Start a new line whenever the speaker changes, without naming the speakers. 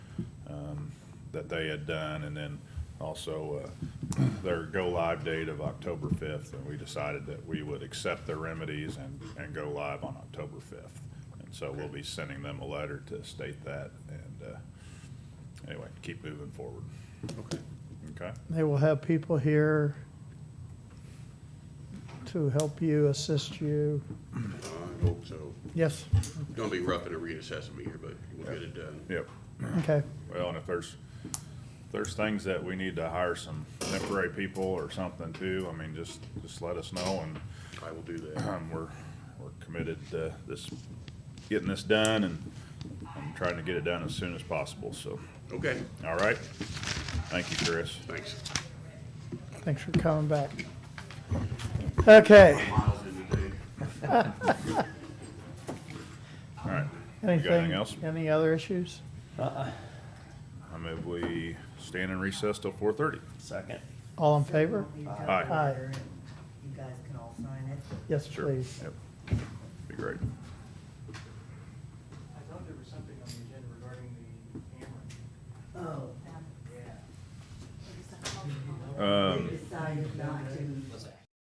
um, that they had done, and then also uh, their go-live date of October 5th, and we decided that we would accept their remedies and, and go live on October 5th. And so we'll be sending them a letter to state that, and uh, anyway, keep moving forward,
Okay.
okay?
They will have people here to help you, assist you.
I hope so.
Yes,
It's gonna be rough in a reassessment year, but we'll get it done.
Yep.
okay.
Well, and if there's, if there's things that we need to hire some temporary people or something too, I mean, just, just let us know and
I will do that.
um, we're, we're committed to this, getting this done and I'm trying to get it done as soon as possible, so,
Okay,
all right? Thank you, Chris.
thanks.
Thanks for coming back. Okay,
Miles in today.
All right. You got
anything,
Anything else?
any other issues?
I move we stand in recess till four thirty.
Second.
All in favor?
You guys
Aye.
are
Aye.
here, and You guys can all sign it.
Yes,
Sure.
please.
Yep. Be great.
I thought there was something on the agenda regarding the camera.
Oh,
Yeah.
Um,
they decided not to